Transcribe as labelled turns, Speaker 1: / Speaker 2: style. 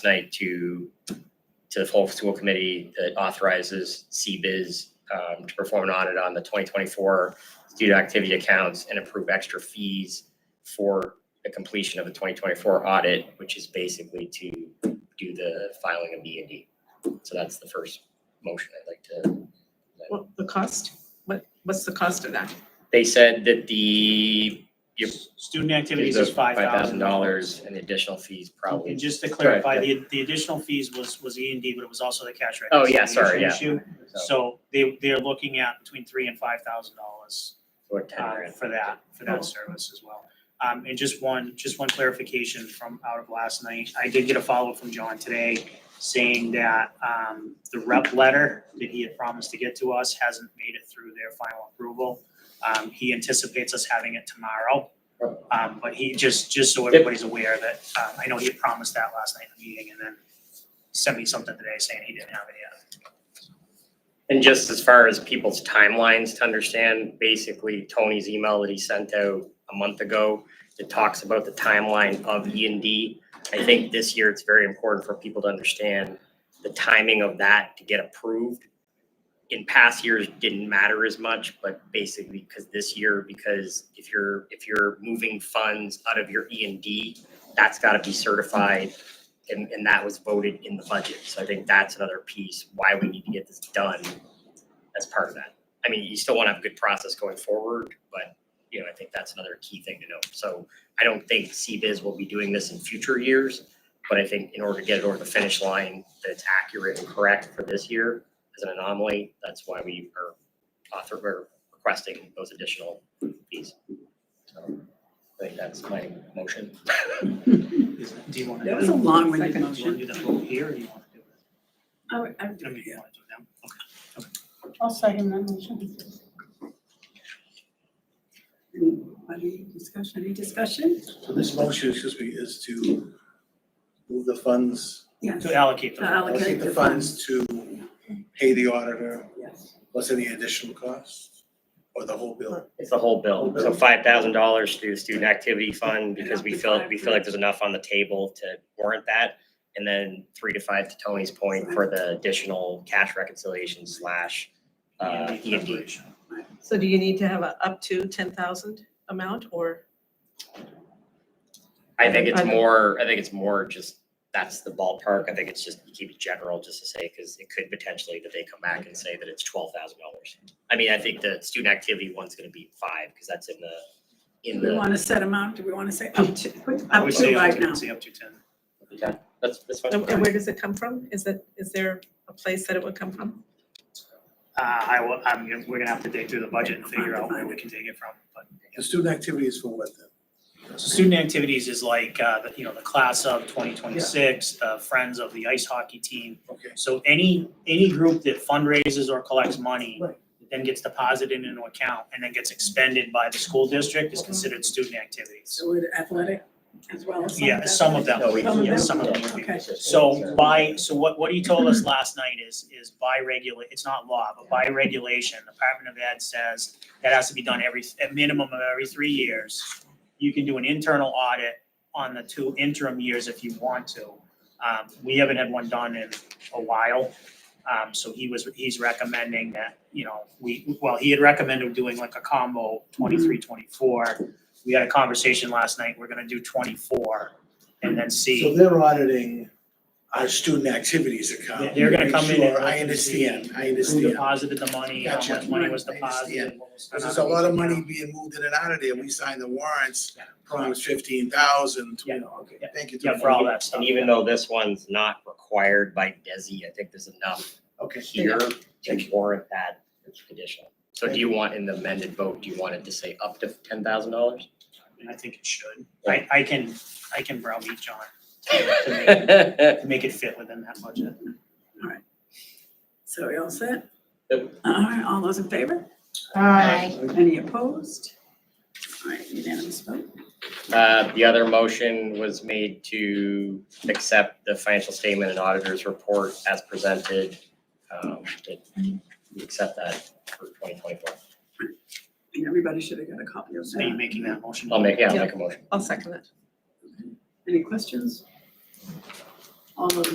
Speaker 1: tonight to, to the full school committee that authorizes CBIZ um, to perform an audit on the 2024 student activity accounts and approve extra fees for the completion of the 2024 audit, which is basically to do the filing of B and D. So that's the first motion I'd like to
Speaker 2: What, the cost? What, what's the cost of that?
Speaker 1: They said that the, Yep.
Speaker 3: Student activities
Speaker 1: the
Speaker 3: is
Speaker 1: five
Speaker 3: five
Speaker 1: thousand
Speaker 3: thousand
Speaker 1: dollars and the additional fees
Speaker 3: And
Speaker 1: probably.
Speaker 3: just to
Speaker 1: Sorry,
Speaker 3: clarify, the, the additional fees was, was E and D, but it was also the cash
Speaker 1: Oh, yeah,
Speaker 3: reconciliation
Speaker 1: sorry, yeah.
Speaker 3: issue.
Speaker 1: So,
Speaker 3: So they, they're looking at between three and five thousand dollars
Speaker 1: or ten grand.
Speaker 3: for that, for
Speaker 2: Oh.
Speaker 3: that service as well. Um, and just one, just one clarification from out of last night. I did get a follow-up from John today saying that, um, the rep letter that he had promised to get to us hasn't made it through their final approval. Um, he anticipates us having it tomorrow. Um, but he, just, just so everybody's aware that, um, I know he had promised that last night in the meeting and then sent me something today saying he didn't have it yet.
Speaker 1: And just as far as people's timelines to understand, basically Tony's email that he sent out a month ago that talks about the timeline of E and D. I think this year it's very important for people to understand the timing of that to get approved. In past years didn't matter as much, but basically because this year, because if you're, if you're moving funds out of your E and D, that's gotta be certified and, and that was voted in the budget. So I think that's another piece why we need to get this done as part of that. I mean, you still want to have a good process going forward, but, you know, I think that's another key thing to note. So I don't think CBIZ will be doing this in future years, but I think in order to get it over the finish line, that it's accurate and correct for this year as an anomaly, that's why we are author, we're requesting those additional fees. So I think that's my motion.
Speaker 3: Is- Do you want to?
Speaker 4: That was a long-winded
Speaker 3: Do you want
Speaker 4: motion.
Speaker 3: to do the vote here or do you want to do it? I mean,
Speaker 4: uh,
Speaker 3: you want to do it now?
Speaker 5: I'll second that motion.
Speaker 4: Any discussion, any discussion?
Speaker 6: So this motion, excuse me, is to move the funds,
Speaker 4: Yes,
Speaker 3: To allocate
Speaker 4: To
Speaker 3: them.
Speaker 4: allocate.
Speaker 6: allocate the funds to pay the auditor,
Speaker 4: yes.
Speaker 6: plus any additional costs, or the whole bill?
Speaker 1: It's the whole bill, so five thousand dollars through the student activity fund, because we feel, we feel like there's enough on the table to warrant that. And then three to five, to Tony's point, for the additional cash reconciliation slash, uh, E and D.
Speaker 3: preparation.
Speaker 2: So do you need to have a up to ten thousand amount or?
Speaker 1: I think it's more, I think it's more just, that's the ballpark, I think it's just, you keep it general, just to say, because it could potentially that they come back and say that it's twelve thousand dollars. I mean, I think the student activity one's gonna be five, because that's in the,
Speaker 4: Do
Speaker 1: in
Speaker 4: we
Speaker 1: the,
Speaker 4: want to set amount? Do we want to say up to, put
Speaker 3: I
Speaker 4: up
Speaker 3: would
Speaker 4: to
Speaker 3: say up
Speaker 4: right
Speaker 3: to,
Speaker 4: now?
Speaker 3: I'd say up to ten.
Speaker 1: that's, that's fine.
Speaker 2: And and where does it come from? Is it, is there a place that it would come from?
Speaker 3: Uh, I will, I'm, gonna- we're gonna have to dig through the budget and figure out where we can take it from, but.
Speaker 6: The student activity is for what then?
Speaker 3: So Student activities is like, uh, the- you know, the class of twenty twenty-six, the friends of the ice hockey team.
Speaker 6: Okay,
Speaker 3: So any, any group that fundraises or collects money,
Speaker 6: Right.
Speaker 3: then gets deposited into an account and then gets expended by the school district is considered student activities.
Speaker 4: So would athletic as well as some
Speaker 3: Yeah, some of
Speaker 4: athletic?
Speaker 3: them,
Speaker 1: No, we-
Speaker 3: yeah, some of them.
Speaker 1: yeah.
Speaker 4: Okay.
Speaker 3: So by, so what, what he told us last night is, is by regula, it's not law, but by regulation, the Department of Ed says that has to be done every, at minimum of every three years. You can do an internal audit on the two interim years if you want to. Um, we haven't had one done in a while. Um, so he was, he's recommending that, you know, we, well, he had recommended doing like a combo 23, 24. We had a conversation last night, we're gonna do twenty-four and then see.
Speaker 6: so they're auditing our student activities account.
Speaker 3: They're gonna come in and
Speaker 6: Sure, I
Speaker 3: look and see
Speaker 6: understand, I
Speaker 3: who
Speaker 6: understand.
Speaker 3: deposited the money, how
Speaker 6: Gotcha.
Speaker 3: much money was
Speaker 6: I understand.
Speaker 3: deposited. what was
Speaker 6: Because
Speaker 3: spent
Speaker 6: there's a
Speaker 3: on
Speaker 6: lot of
Speaker 3: each
Speaker 6: money
Speaker 3: account.
Speaker 6: being moved in and out of there, we signed the warrants,
Speaker 3: Yeah.
Speaker 6: promised fifteen thousand,
Speaker 3: Yeah.
Speaker 6: you know, okay,
Speaker 3: Yeah.
Speaker 6: thank you.
Speaker 3: Yeah,
Speaker 6: Tony.
Speaker 3: for all that stuff.
Speaker 1: And even though this one's not required by DESI, I think there's enough
Speaker 6: Okay,
Speaker 1: here to warrant that condition. So do
Speaker 6: Thank
Speaker 1: you want in the amended vote, do you want it to say up to ten thousand dollars?
Speaker 3: And I think it should. I, I can, I can browbeat John to make
Speaker 1: Uh,
Speaker 3: it-
Speaker 1: Yep,
Speaker 3: to make it fit within that budget.
Speaker 4: So we all set?
Speaker 1: Yep.
Speaker 4: All right, all those in favor?
Speaker 5: Aye.
Speaker 4: Any opposed? All right, unanimous vote.
Speaker 1: Uh, the other motion was made to accept the financial statement and auditor's report as presented. Um, that we accept that for twenty twenty-four.
Speaker 4: And everybody should have got a copy of
Speaker 3: Are you
Speaker 4: that.
Speaker 3: making that motion?
Speaker 1: I'll make, yeah, I'll make a motion.
Speaker 2: I'll second that.
Speaker 4: Any questions?
Speaker 5: All those